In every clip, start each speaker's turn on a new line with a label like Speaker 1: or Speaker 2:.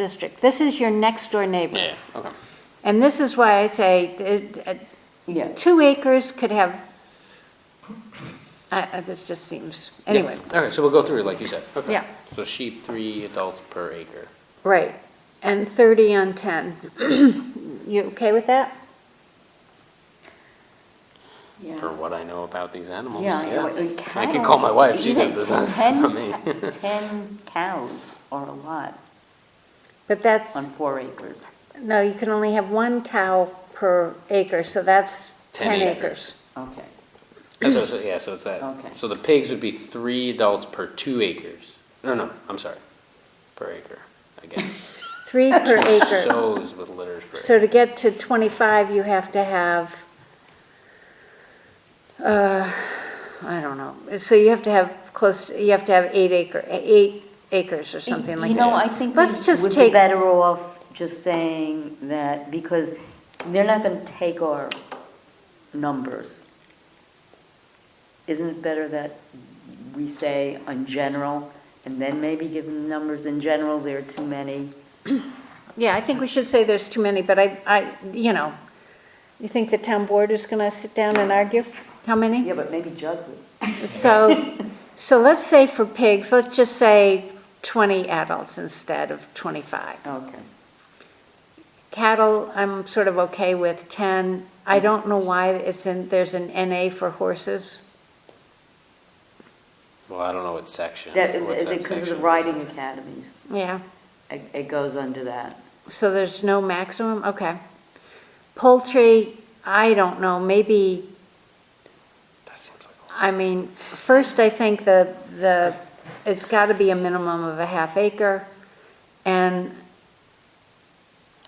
Speaker 1: district. This is your next door neighbor.
Speaker 2: Yeah, okay.
Speaker 1: And this is why I say, it- it-
Speaker 3: Yeah,
Speaker 1: two acres could have, I- I- this just seems, anyway,
Speaker 2: Yeah, All right, so we'll go through, like you said. Okay.
Speaker 1: Yeah.
Speaker 2: So sheep, three adults per acre.
Speaker 1: right. And 30 on 10. You okay with that?
Speaker 2: For
Speaker 3: yeah.
Speaker 2: what I know about these animals,
Speaker 3: Yeah,
Speaker 2: yeah.
Speaker 3: uh, uh,
Speaker 2: I can
Speaker 3: cattle,
Speaker 2: call my wife, she
Speaker 3: you
Speaker 2: does
Speaker 3: know,
Speaker 2: this, that's not me.
Speaker 3: ten- Ten cows are a lot
Speaker 1: But
Speaker 3: on
Speaker 1: that's,
Speaker 3: four acres.
Speaker 1: no, you can only have one cow per acre, so that's 10 acres.
Speaker 3: Okay,
Speaker 2: That's what- so- yeah, so it's
Speaker 3: Okay.
Speaker 2: that. So the pigs would be three adults per two acres. No, no, I'm sorry, per acre, again.
Speaker 1: Three per acre.
Speaker 2: Sows with litters per
Speaker 1: So
Speaker 2: acre.
Speaker 1: to get to 25, you have to have, uh, I don't know, so you have to have close, to- you have to have eight acre, eight acres or something like that.
Speaker 3: You know, I think we
Speaker 1: Let's just
Speaker 3: would be
Speaker 1: take-
Speaker 3: better off just saying that, because they're not gonna take our numbers. Isn't it better that we say on general, and then maybe give them numbers in general, there are too many?
Speaker 1: Yeah, I think we should say there's too many, but I, I, you know, you think the town board is gonna sit down and argue? How many?
Speaker 3: Yeah, but maybe judge it.
Speaker 1: So, so let's say for pigs, let's just say 20 adults instead of 25.
Speaker 3: Okay.
Speaker 1: Cattle, I'm sort of okay with 10. I don't know why it's in, there's an NA for horses.
Speaker 2: Well, I don't know what section,
Speaker 3: That,
Speaker 2: what's that
Speaker 3: because of the
Speaker 2: section?
Speaker 3: riding academies,
Speaker 1: Yeah,
Speaker 3: it, it goes under that.
Speaker 1: so there's no maximum, okay. Poultry, I don't know, maybe
Speaker 2: That seems like a lot.
Speaker 1: I mean, first, I think the, the, it's got to be a minimum of a half acre, and,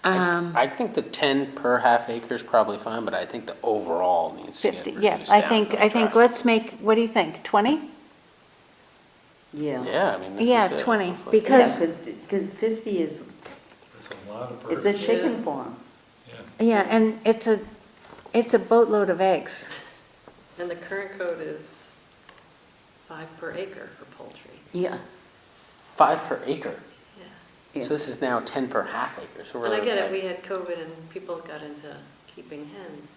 Speaker 1: um,
Speaker 2: I I think the ten per half acre is probably fine, but I think the overall needs to get
Speaker 1: 50,
Speaker 2: reduced down.
Speaker 1: yeah, I think, I think,
Speaker 2: drastically.
Speaker 1: let's make, what do you think, 20?
Speaker 3: Yeah.
Speaker 2: Yeah, I mean, this is.
Speaker 1: Yeah,
Speaker 2: it. This
Speaker 1: 20,
Speaker 2: is like-
Speaker 1: because-
Speaker 3: Because fifty is,
Speaker 4: It's a lot of birds.
Speaker 3: it's a chicken farm.
Speaker 1: Yeah, and it's a, it's a boatload of eggs.
Speaker 5: And the current code is five per acre for poultry.
Speaker 3: Yeah.
Speaker 2: Five per acre.
Speaker 3: Yeah.
Speaker 2: So this is now ten per half acre, so we're.
Speaker 5: And I get it, we
Speaker 2: like-
Speaker 5: had COVID and people got into keeping hens,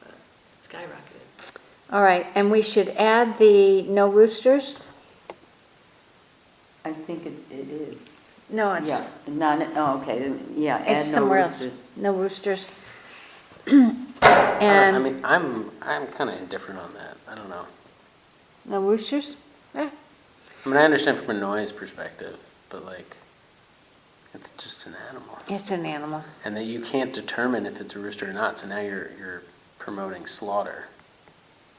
Speaker 5: but it skyrocketed.
Speaker 1: All right, and we should add the no roosters?
Speaker 3: I think it, it is.
Speaker 1: No, it's,
Speaker 3: Yeah, none, oh, okay, then, yeah,
Speaker 1: it's
Speaker 3: add no
Speaker 1: somewhere else,
Speaker 3: roosters.
Speaker 1: no roosters.
Speaker 2: I don't- I
Speaker 1: And,
Speaker 2: mean, I'm, I'm kind of indifferent on that, I don't know.
Speaker 1: no roosters? Eh,
Speaker 2: I mean, I understand from a noise perspective, but like, it's just an animal.
Speaker 1: It's an animal.
Speaker 2: And that you can't determine if it's a rooster or not, so now you're, you're promoting slaughter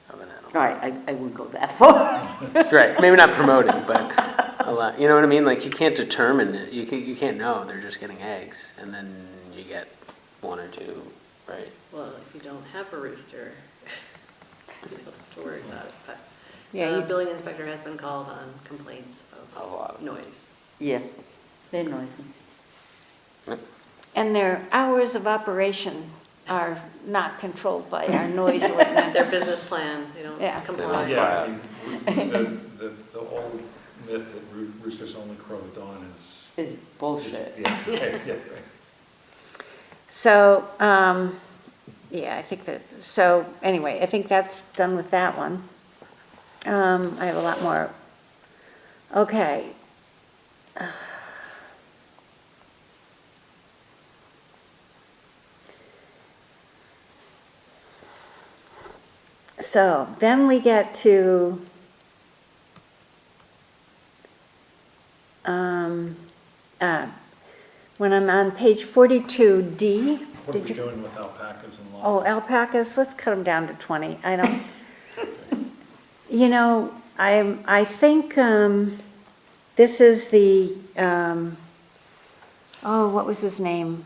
Speaker 2: of an animal.
Speaker 3: All right, I, I wouldn't go that far.
Speaker 2: Right, maybe not promoting, but a lot, you know what I mean? Like, you can't determine, it. you can't, you can't know, they're just getting eggs, and then you get one or two, right?
Speaker 5: Well, if you don't have a rooster, you don't have to worry about it, but.
Speaker 1: Yeah,
Speaker 5: The
Speaker 1: you-
Speaker 5: building inspector has been called on complaints
Speaker 2: A lot of-
Speaker 5: of noise.
Speaker 3: Yeah, they're noisy.
Speaker 2: Yep.
Speaker 1: And their hours of operation are not controlled by our noise ordinance.
Speaker 5: Their business plan, they don't
Speaker 1: Yeah.
Speaker 5: comply.
Speaker 4: Yeah, I mean, the, the, the old myth that roo- roosters only crow at dawn is.
Speaker 3: It's bullshit.
Speaker 4: Yeah, yeah, yeah, right.
Speaker 1: So, um, yeah, I think that, so, anyway, I think that's done with that one. Um, I have a lot more. Okay. So then we get to, um, uh, when I'm on page 42D.
Speaker 4: What are
Speaker 1: did
Speaker 4: we
Speaker 1: you?
Speaker 4: doing with alpacas and
Speaker 1: Oh,
Speaker 4: lions?
Speaker 1: alpacas, let's cut them down to 20. I don't, you know, I'm, I think um, this is the, um, oh, what was his name?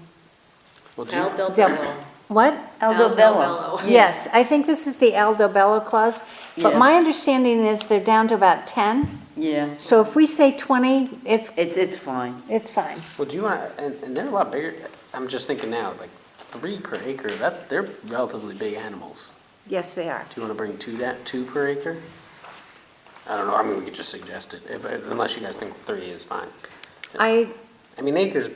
Speaker 2: Well, do you-
Speaker 5: Al Del
Speaker 1: Del-
Speaker 5: Bello.
Speaker 1: What?
Speaker 5: Al Del
Speaker 3: Aldabella.
Speaker 5: Bello.
Speaker 1: Yes, I think this is the Aldo Bello clause, but
Speaker 3: Yeah.
Speaker 1: my understanding is they're down to about 10.
Speaker 3: Yeah,
Speaker 1: So if we say 20, it's,
Speaker 3: it's, it's fine.
Speaker 1: it's fine.
Speaker 2: Well, do you want, and, and they're a lot bigger, I'm just thinking now, like, three per acre, that's, they're relatively big animals.
Speaker 1: Yes, they are.
Speaker 2: Do you wanna bring two that, two per acre? I don't know, I mean, we could just suggest it, if, unless you guys think three is fine.
Speaker 1: I,
Speaker 2: I mean, acres